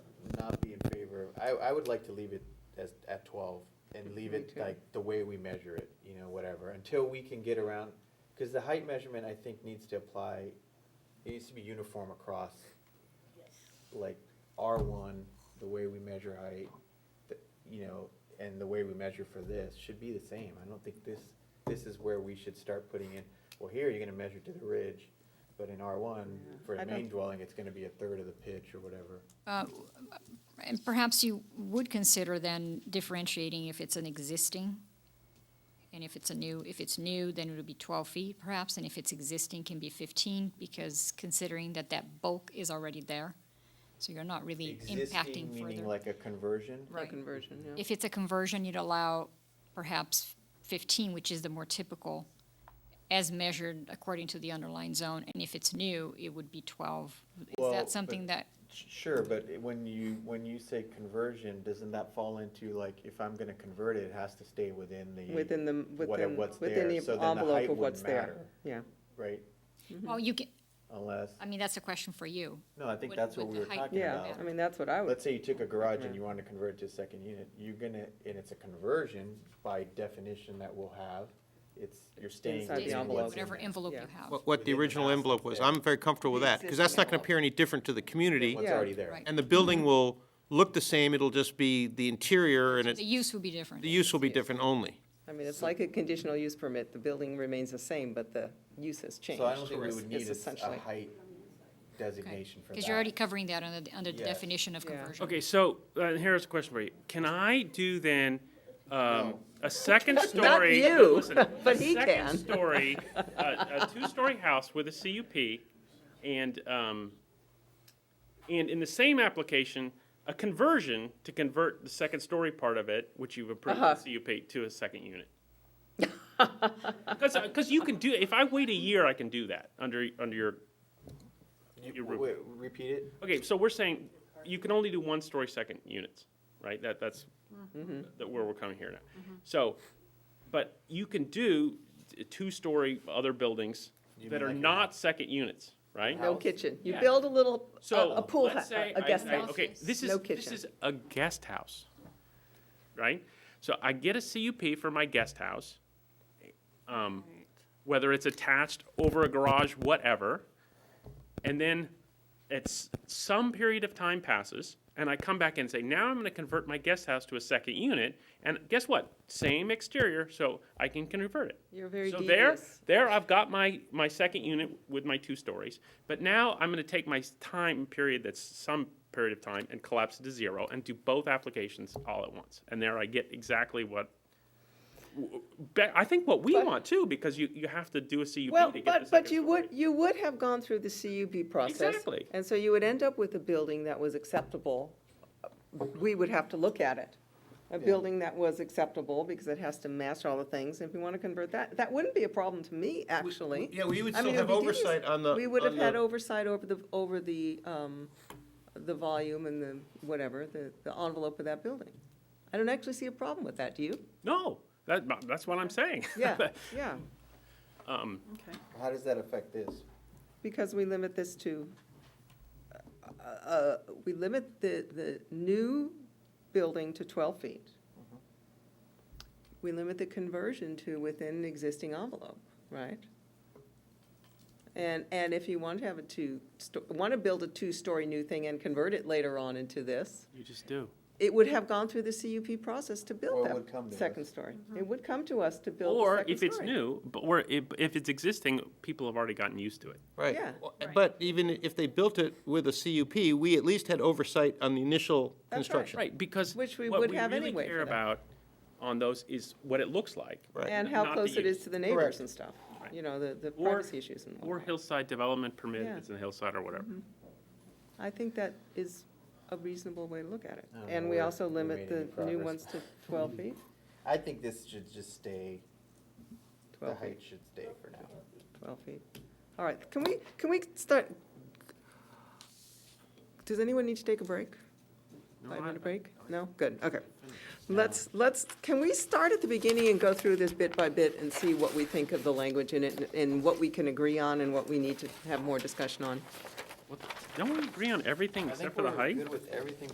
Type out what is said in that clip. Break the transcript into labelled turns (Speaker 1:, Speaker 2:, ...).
Speaker 1: I, I would like to leave it as, at twelve and leave
Speaker 2: Me
Speaker 1: it
Speaker 2: too.
Speaker 1: like the way we measure it, you know, whatever, until we can get around, because the height measurement, I think, needs to apply, it needs to be uniform across, like, R one, the way we measure height, the- you know, and the way we measure for this should be the same. I don't think this, this is where we should start putting in, well, here you're gonna measure to the ridge, but in R one,
Speaker 2: Yeah.
Speaker 1: for
Speaker 2: I
Speaker 1: a
Speaker 2: don't-
Speaker 1: main dwelling, it's gonna be a third of the pitch or whatever.
Speaker 3: Uh, And perhaps you would consider then differentiating if it's an existing, and if it's a new, if it's new, then it would be twelve feet perhaps, and if it's existing, can be fifteen, because considering that that bulk is already there, so you're not really
Speaker 1: Existing
Speaker 3: impacting
Speaker 1: meaning
Speaker 3: further.
Speaker 1: like a conversion?
Speaker 2: for
Speaker 3: Right.
Speaker 2: conversion, yeah.
Speaker 3: If it's a conversion, you'd allow perhaps fifteen, which is the more typical, as measured according to the underlying zone, and if it's new, it would be twelve. Is
Speaker 1: Well,
Speaker 3: that
Speaker 1: but-
Speaker 3: something that,
Speaker 1: Sh- Sure, but it- when you, when you say conversion, doesn't that fall into like, if I'm gonna convert it, it has to stay within the,
Speaker 2: Within the, within,
Speaker 1: what's
Speaker 2: within
Speaker 1: there, so then
Speaker 2: the
Speaker 1: the height
Speaker 2: envelope of
Speaker 1: wouldn't
Speaker 2: what's there,
Speaker 1: matter.
Speaker 2: yeah.
Speaker 1: right?
Speaker 3: well, you can,
Speaker 1: Unless,
Speaker 3: I mean, that's a question for you.
Speaker 1: no, I think
Speaker 3: Would-
Speaker 1: that's what
Speaker 3: would
Speaker 1: we
Speaker 3: the
Speaker 1: were
Speaker 3: height
Speaker 1: talking
Speaker 3: matter?
Speaker 2: Yeah,
Speaker 1: about.
Speaker 2: I mean, that's what I would,
Speaker 1: Let's say you took a garage
Speaker 2: Yeah.
Speaker 1: and you wanted to convert it to a second unit, you're gonna, and it's a conversion by definition that we'll have, it's, you're staying
Speaker 2: Inside the
Speaker 1: within
Speaker 2: envelope.
Speaker 1: what's in
Speaker 3: Whatever
Speaker 1: there.
Speaker 3: envelope
Speaker 2: Yeah.
Speaker 3: you have.
Speaker 4: What- What the
Speaker 1: Within the
Speaker 4: original
Speaker 1: bounds
Speaker 4: envelope was,
Speaker 1: there.
Speaker 4: I'm very comfortable with that, because that's not going to appear any different to the community,
Speaker 1: What's
Speaker 2: Yeah.
Speaker 1: already there.
Speaker 3: Right.
Speaker 4: and the building will look the same, it'll just be the interior, and
Speaker 3: The
Speaker 4: it,
Speaker 3: use would be different.
Speaker 4: the use will be different only.
Speaker 2: I mean, it's like a conditional use permit, the building remains the same, but the use has changed.
Speaker 1: So I don't think we
Speaker 2: is-
Speaker 1: would need
Speaker 2: is
Speaker 1: a s- a
Speaker 2: essentially.
Speaker 1: height designation for that.
Speaker 3: Because you're already covering that under, the- under the
Speaker 1: Yes.
Speaker 3: definition of
Speaker 2: Yeah.
Speaker 3: conversion.
Speaker 5: Okay, so uh, here's a question for you. Can I do then um, a second
Speaker 2: Not
Speaker 5: story?
Speaker 2: you,
Speaker 5: listen,
Speaker 2: but he
Speaker 5: A
Speaker 2: can.
Speaker 5: second story, a, a two-story house with a CUP, and um, and in the same application, a conversion to convert the second story part of it, which you've approved in
Speaker 2: Uh-huh.
Speaker 5: CUP, to a second unit. Because you can do if I wait a year, I can do that under under your
Speaker 1: You-
Speaker 5: your roof.
Speaker 1: wait, Repeat it?
Speaker 5: Okay, so we're saying you can only do one-story second units, right? That, that's, that where we're coming here now. So, but you can do t- two-story other buildings
Speaker 1: You
Speaker 5: that
Speaker 1: mean
Speaker 5: are
Speaker 1: like a-
Speaker 5: not second units, right?
Speaker 2: No
Speaker 1: house.
Speaker 2: kitchen, you
Speaker 5: Yeah.
Speaker 2: build a little, a-
Speaker 5: So,
Speaker 2: a pool,
Speaker 5: let's
Speaker 2: hou-
Speaker 5: say
Speaker 2: a a
Speaker 5: I-
Speaker 2: guest
Speaker 5: I-
Speaker 2: house.
Speaker 5: Okay, this
Speaker 2: No
Speaker 5: is, this
Speaker 2: kitchen.
Speaker 5: is a guest house, right? So I get a CUP for my guest house, um, whether it's attached over a garage, whatever. And then it's, some period of time passes, and I come back and say, now I'm gonna convert my guest house to a second unit, and guess what? Same exterior, so I can convert it.
Speaker 2: You're very
Speaker 5: So there,
Speaker 2: devious.
Speaker 5: there I've got my, my second unit with my two stories, but now I'm gonna take my s- time period that's some period of time and collapse it to zero and do both applications all at once. And there I get exactly what, w- be- I think what we
Speaker 2: But-
Speaker 5: want too, because you, you have to do a CUP
Speaker 2: Well,
Speaker 5: to get the
Speaker 2: but, but
Speaker 5: second
Speaker 2: you would,
Speaker 5: story.
Speaker 2: you would have gone through the CUP process.
Speaker 5: Exactly.
Speaker 2: And so you would end up with a building that was acceptable. We would have to look at it. A building that was acceptable because it has to match all the things. If you want to convert that, that wouldn't be a problem to me, actually.
Speaker 4: yeah, we would
Speaker 2: I mean,
Speaker 4: still
Speaker 2: it
Speaker 4: have
Speaker 2: would be devious.
Speaker 4: oversight on the-
Speaker 2: We would
Speaker 4: on
Speaker 2: have had
Speaker 4: the-
Speaker 2: oversight over the, over the, um, the volume and the whatever, the, the envelope of that building. I don't actually see a problem with that, do you?
Speaker 5: No, that, that's what I'm saying.
Speaker 2: Yeah, yeah,
Speaker 5: Um,
Speaker 6: Okay.
Speaker 1: How does that affect this?
Speaker 2: because we limit this to, uh, uh, we limit the, the new building to twelve feet. We limit the conversion to within an existing envelope, right? And, and if you want to have a two, want to build a two-story new thing and convert it later on into this,
Speaker 5: You just do.
Speaker 2: it would have gone through the CUP process to
Speaker 1: Or it
Speaker 2: build
Speaker 1: would come to
Speaker 2: that
Speaker 1: us.
Speaker 2: second story. It would come to us to build the
Speaker 5: Or
Speaker 2: second
Speaker 5: if it's
Speaker 2: story.
Speaker 5: new, but, or if, if it's existing, people have already gotten used to it.
Speaker 4: Right.
Speaker 2: Yeah.
Speaker 4: Well, But even if they built it with a CUP, we at least had oversight on the initial
Speaker 2: right.
Speaker 4: construction.
Speaker 5: Right, because
Speaker 2: Which we
Speaker 5: what
Speaker 2: would
Speaker 5: we
Speaker 2: have
Speaker 5: really
Speaker 2: anyway
Speaker 5: care
Speaker 2: for that.
Speaker 5: about on those is what it looks like.
Speaker 2: And
Speaker 5: Not
Speaker 2: how
Speaker 5: the
Speaker 2: close it
Speaker 5: use.
Speaker 2: is to the neighbors
Speaker 1: Correct.
Speaker 2: and stuff,
Speaker 5: Right.
Speaker 2: you know, the, the
Speaker 5: Or-
Speaker 2: privacy issues and
Speaker 5: Or
Speaker 2: whatnot.
Speaker 5: hillside development permit,
Speaker 2: Yeah. Mm-hmm.
Speaker 5: if it's in hillside or whatever.
Speaker 2: I think that is a reasonable way to look at it.
Speaker 1: I don't know
Speaker 2: And we
Speaker 1: where
Speaker 2: also
Speaker 1: we
Speaker 2: limit
Speaker 1: made any
Speaker 2: the new
Speaker 1: progress.
Speaker 2: ones to twelve feet,
Speaker 1: I think this should just stay, the
Speaker 2: twelve feet,
Speaker 1: height should stay for now.
Speaker 5: Hmm,
Speaker 2: twelve feet. All right, can we, can we start? Does anyone need to take a break?
Speaker 5: No, I-
Speaker 2: Five-minute break? No? Good, okay. Let's, let's, can we start at the beginning and go through this bit by bit and see what we think of the language in it and- and what we can agree on and what we need to have more discussion on?
Speaker 5: What the- Don't we agree on everything
Speaker 1: I think
Speaker 5: except for the
Speaker 1: we're
Speaker 5: height?
Speaker 1: Good with everything